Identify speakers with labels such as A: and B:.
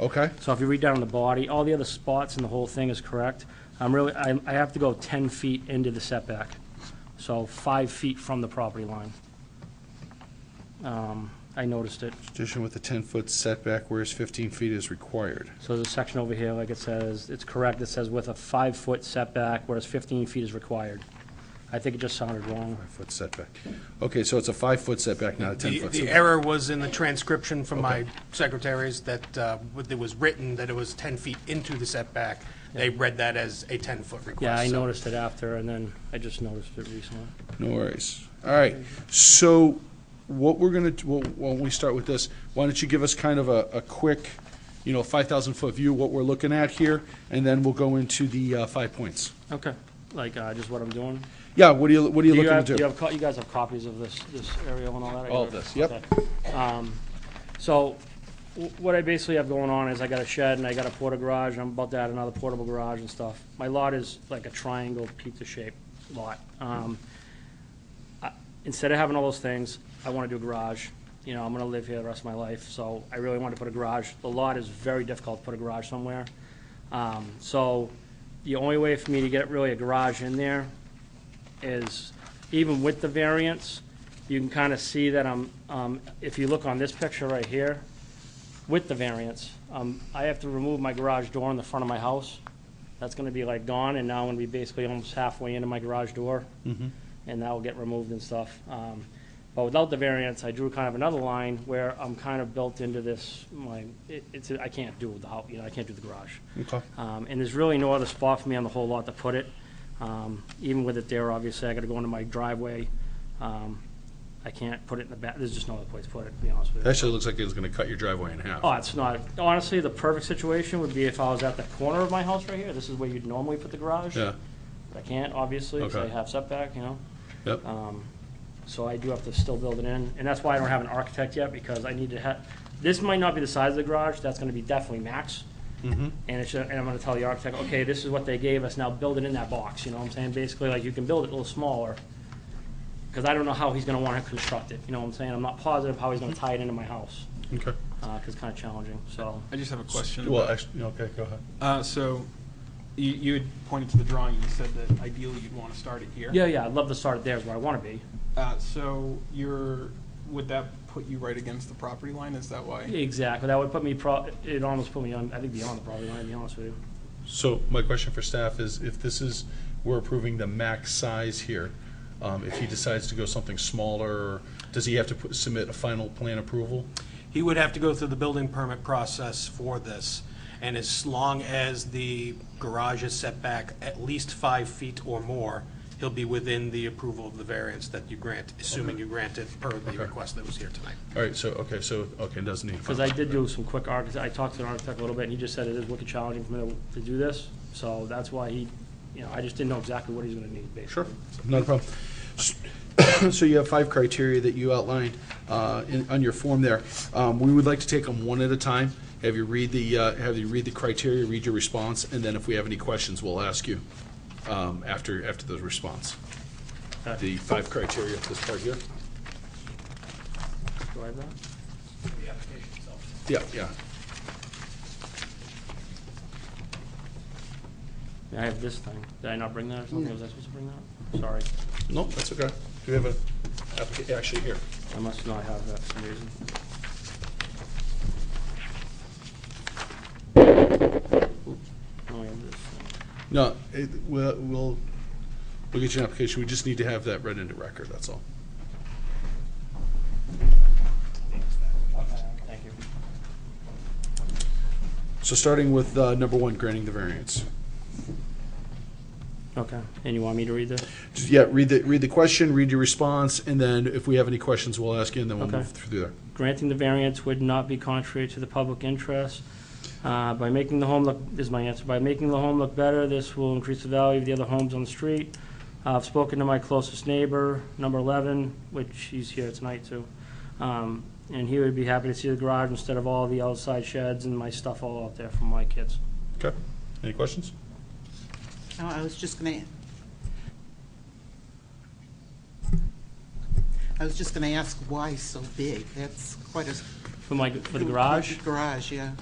A: Okay,
B: So if you read down the body, all the other spots in the whole thing is correct. I'm really, I, I have to go ten feet into the setback, so five feet from the property line. Um, I noticed it.
A: addition with a 10-foot setback, whereas 15 feet is required.
B: So there's a section over here, like it says, it's correct, it says with a five-foot setback, whereas fifteen feet is required. I think it just sounded wrong.
A: Five-foot setback. Okay, so it's a five-foot setback, not a
C: The
A: 10-foot
C: the
A: setback.
C: error was in the transcription from my secretaries that uh, it was written that it was 10 feet into the setback. They read that as a 10-foot request.
B: Yeah, I
C: so-
B: noticed it after, and then I just noticed it recently.
A: No worries. All right, so what we're going to, well, why don't we start with this? Why don't you give us kind of a, a quick, you know, 5,000-foot view, what we're looking at here, and then we'll go into the uh, five points.
B: Okay, like, uh, just what I'm doing.
A: Yeah, what are you, what are you
B: Do you
A: looking
B: have,
A: to
B: do you
A: do?
B: have, co- you guys have copies of this, this aerial and all that?
A: All of this, yep.
B: Okay. Um, So, w- what I basically have going on is I got a shed and I got a porta garage, I'm about to add another portable garage and stuff. My lot is like a triangle pizza-shaped lot. Um, I- Instead of having all those things, I want to do a garage, you know, I'm gonna live here the rest of my life, so I really want to put a garage. The lot is very difficult to put a garage somewhere. Um, So, the only way for me to get really a garage in there is, even with the variance, you can kind of see that I'm, um, if you look on this picture right here, with the variance, um, I have to remove my garage door in the front of my house. That's gonna be like gone, and now I'm gonna be basically almost halfway into my garage door. And that will get removed and stuff. Um, but without the variance, I drew kind of another line where I'm kind of built into this, my, it, it's, I can't do the house, you know, I can't do the garage.
A: Okay.
B: Um, And there's really no other spot for me on the whole lot to put it. Um, Even with it there, obviously, I gotta go into my driveway. Um, I can't put it in the back, there's just no other place to put it, to be honest with you.
A: Actually, it looks like it's going to cut your driveway in half.
B: Oh, it's not, honestly, the perfect situation would be if I was at the corner of my house right here. This is where you'd normally put the garage.
A: Yeah,
B: But I can't, obviously, because I
A: Okay.
B: have setback, you know?
A: yep.
B: Um, So I do have to still build it in, and that's why I don't have an architect yet, because I need to have, this might not be the size of the garage, that's gonna be definitely max.
A: Mm-hmm.
B: And it's, and I'm gonna tell the architect, okay, this is what they gave us, now build it in that box, you know what I'm saying? Basically, like, you can build it a little smaller, because I don't know how he's gonna wanna construct it, you know what I'm saying? I'm not positive how he's gonna tie it into my house,
A: Okay.
B: uh, 'cause it's kinda challenging, so.
D: I just have a question.
A: Well,
D: about-
A: actually, okay, go ahead.
D: uh, so you, you had pointed to the drawing and you said that ideally you'd want to start it here.
B: Yeah, yeah, I'd love to start it there, is where I wanna be.
D: Uh, so you're, would that put you right against the property line? Is that why?
B: Exactly, that would put me pro, it almost put me on, I think beyond the property line, to be honest with you.
A: So my question for staff is, if this is, we're approving the max size here, um, if he decides to go something smaller, does he have to put- submit a final plan approval?
C: He would have to go through the building permit process for this, and as long as the garage is set back at least five feet or more, he'll be within the approval of the variance that you grant, assuming you grant it per the request that was here tonight.
A: All right, so, okay, so, okay, it doesn't need. a
B: Because
A: final-
B: I did do some quick architect, I talked to an architect a little bit, and he just said it is wicked challenging for me to- to do this, so that's why he, you know, I just didn't know exactly what he's gonna need, basically.
A: Sure, not a problem. So you have five criteria that you outlined uh, in- on your form there. Um, We would like to take them one at a time, have you read the, uh, have you read the criteria, read your response, and then if we have any questions, we'll ask you um, after, after the response. The five criteria, this part here.
B: Do I have that?
A: Yeah, yeah.
B: Yeah, I have this thing. Did I not bring that or something? Was I supposed to bring that? Sorry,
A: No, that's okay. Do we have a, applica- actually, here.
B: I must not have that for some reason. Oops. No, I have this thing.
A: No, it, we'll, we'll, we'll get you an application. We just need to have that read into record, that's all.
B: Okay, thank you.
A: So starting with uh, number one, granting the variance.
B: Okay, and you want me to read this?
A: Just, Yeah, read the, read the question, read your response, and then if we have any questions, we'll ask you, and then we'll
B: Okay.
A: move through there.
B: granting the variance would not be contrary to the public interest. Uh, By making the home look, is my answer, by making the home look better, this will increase the value of the other homes on the street. Uh, I've spoken to my closest neighbor, number 11, which he's here tonight too, Um, and he would be happy to see the garage instead of all the outside sheds and my stuff all out there from my kids.
A: Okay, any questions?
E: Oh, I was just gonna. I was just gonna ask why so big? That's quite a.
B: For my, for the garage?
E: Garage, yeah.